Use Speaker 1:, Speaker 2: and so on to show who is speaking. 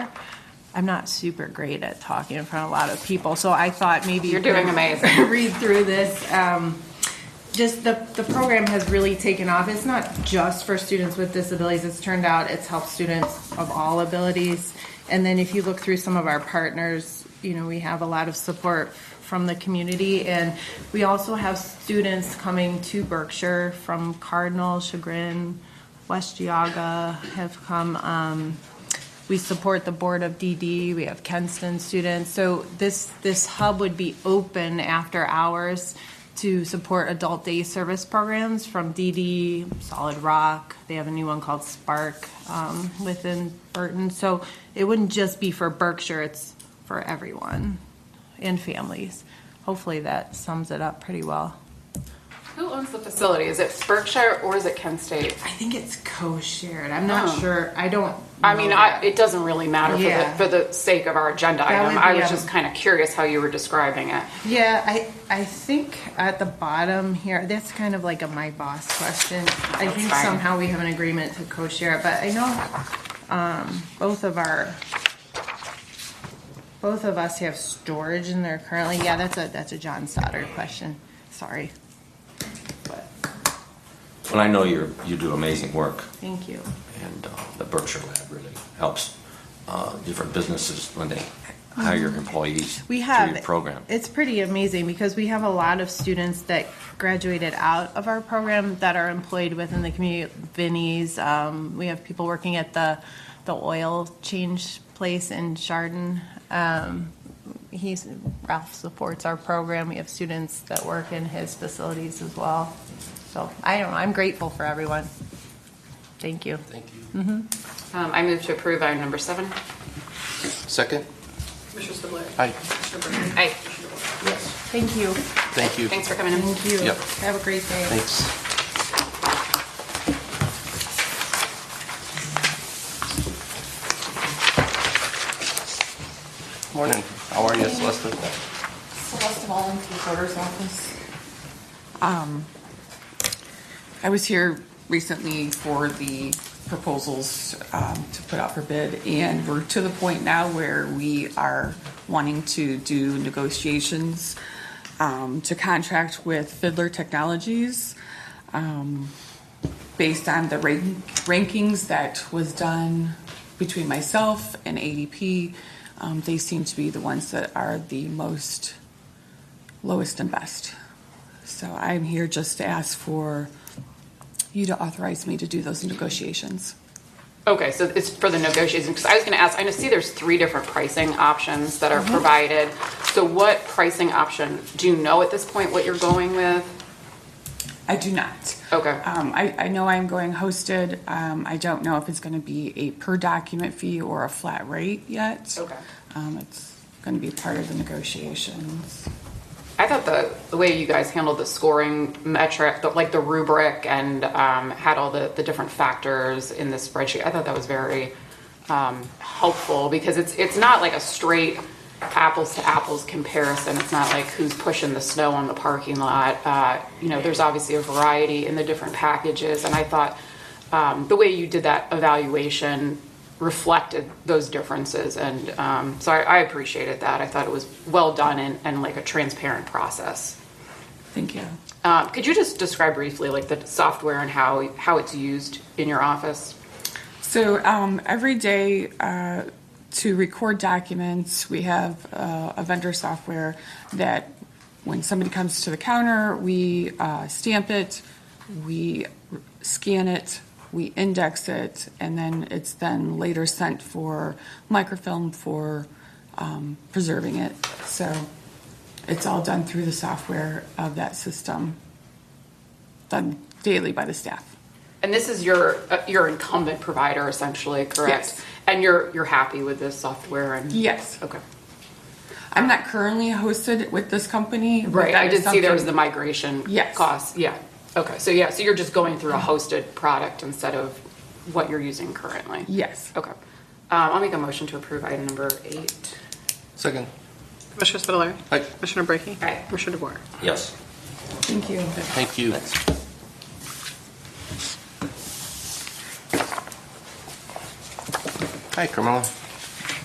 Speaker 1: I'm not super great at talking in front of a lot of people, so I thought maybe.
Speaker 2: You're doing amazing.
Speaker 1: Read through this. Um, just the, the program has really taken off. It's not just for students with disabilities. It's turned out it's helped students of all abilities. And then if you look through some of our partners, you know, we have a lot of support from the community. And we also have students coming to Berkshire from Cardinal, Chagrin, West Geauga have come. Um, we support the board of DD. We have Kenston students. So this this hub would be open after hours to support adult day service programs from DD, Solid Rock. They have a new one called Spark um, within Burton. So it wouldn't just be for Berkshire. It's for everyone and families. Hopefully that sums it up pretty well.
Speaker 2: Who owns the facility? Is it Berkshire or is it Kent State?
Speaker 1: I think it's co-shared. I'm not
Speaker 2: Oh.
Speaker 1: sure. I don't.
Speaker 2: I mean,
Speaker 1: know
Speaker 2: I,
Speaker 1: that.
Speaker 2: it doesn't really matter for
Speaker 1: Yeah.
Speaker 2: the, for the sake of our agenda
Speaker 1: That
Speaker 2: item.
Speaker 1: would
Speaker 2: I
Speaker 1: be,
Speaker 2: was
Speaker 1: um,
Speaker 2: just kind of curious how you were describing it.
Speaker 1: Yeah, I, I think at the bottom here, that's kind of like a my boss question. I
Speaker 2: That's
Speaker 1: think
Speaker 2: fine.
Speaker 1: somehow we have an agreement to co-share, it, but I know, um, both of our, both of us have storage in there currently. Yeah, that's a, that's a John Stoddard question. Sorry. But,
Speaker 3: Well, I know you're, you do amazing work,
Speaker 1: thank you.
Speaker 3: and uh, the Berkshire Lab really helps uh, different businesses when they hire employees through
Speaker 1: Um, We have
Speaker 3: your program.
Speaker 1: It's pretty amazing because we have a lot of students that graduated out of our program that are employed within the community. Vinnie's, um, we have people working at the the oil change place in Chardon. Um, he's Ralph supports our program. We have students that work in his facilities as well. So I don't know. I'm grateful for everyone. Thank you.
Speaker 2: Um, I move to approve item number seven.
Speaker 4: Second?
Speaker 5: Commissioner Spudler.
Speaker 4: Aye.
Speaker 5: Commissioner Bird.
Speaker 2: Aye.
Speaker 1: Thank you.
Speaker 4: Thank you.
Speaker 2: Thanks for coming in.
Speaker 1: Thank you.
Speaker 4: Yep.
Speaker 1: Have a great day.
Speaker 4: Thanks. Morning. How are you, Celeste?
Speaker 5: Celeste Mullen, Recorder's Office. Um, I was here recently for the proposals um, to put out for bid, and we're to the point now where we are wanting to do negotiations um, to contract with Fiddler Technologies um, based on the rank- rankings that was done between myself and ADP. Um, They seem to be the ones that are the most lowest and best. So I'm here just to ask for you to authorize me to do those negotiations.
Speaker 2: Okay, so it's for the negotiations, because I was gonna ask, I know, see there's three different pricing options that
Speaker 1: Mm-hmm.
Speaker 2: are provided. So what pricing option, do you know at this point what you're going with?
Speaker 5: I do not.
Speaker 2: Okay.
Speaker 5: Um, I, I know I'm going hosted. Um, I don't know if it's gonna be a per document fee or a flat rate yet.
Speaker 2: Okay.
Speaker 5: Um, it's gonna be part of the negotiations.
Speaker 2: I thought the, the way you guys handled the scoring metric, the, like the rubric and um, had all the, the different factors in the spreadsheet, I thought that was very um, helpful because it's, it's not like a straight apples to apples comparison. It's not like who's pushing the snow on the parking lot. Uh, you know, there's obviously a variety in the different packages, and I thought um, the way you did that evaluation reflected those differences. And um, so I, I appreciated that. I thought it was well done and, and like a transparent process.
Speaker 5: Thank you.
Speaker 2: Um, could you just describe briefly like the software and how, how it's used in your office?
Speaker 5: So um, every day uh, to record documents, we have uh, a vendor software that when somebody comes to the counter, we uh, stamp it, we scan it, we index it, and then it's then later sent for microfilm for um, preserving it. So it's all done through the software of that system, done daily by the staff.
Speaker 2: And this is your, uh, your incumbent provider essentially, correct?
Speaker 5: Yes.
Speaker 2: And you're, you're happy with this software and?
Speaker 5: Yes.
Speaker 2: Okay.
Speaker 5: I'm not currently hosted with this company. but
Speaker 2: Right,
Speaker 5: that
Speaker 2: I
Speaker 5: is
Speaker 2: did see there was the
Speaker 5: something-
Speaker 2: migration
Speaker 5: Yes.
Speaker 2: costs, yeah. Okay, so yeah, so you're just going through a hosted product instead of what you're using currently?
Speaker 5: Yes.
Speaker 2: Okay. Um, I'll make a motion to approve item number eight.
Speaker 4: Second.
Speaker 6: Commissioner Spudler.
Speaker 4: Aye.
Speaker 6: Commissioner Brackey.
Speaker 2: Aye.
Speaker 6: Commissioner DeBoer.
Speaker 3: Yes.
Speaker 5: Thank you.
Speaker 4: Thank you. Hi, Carmela.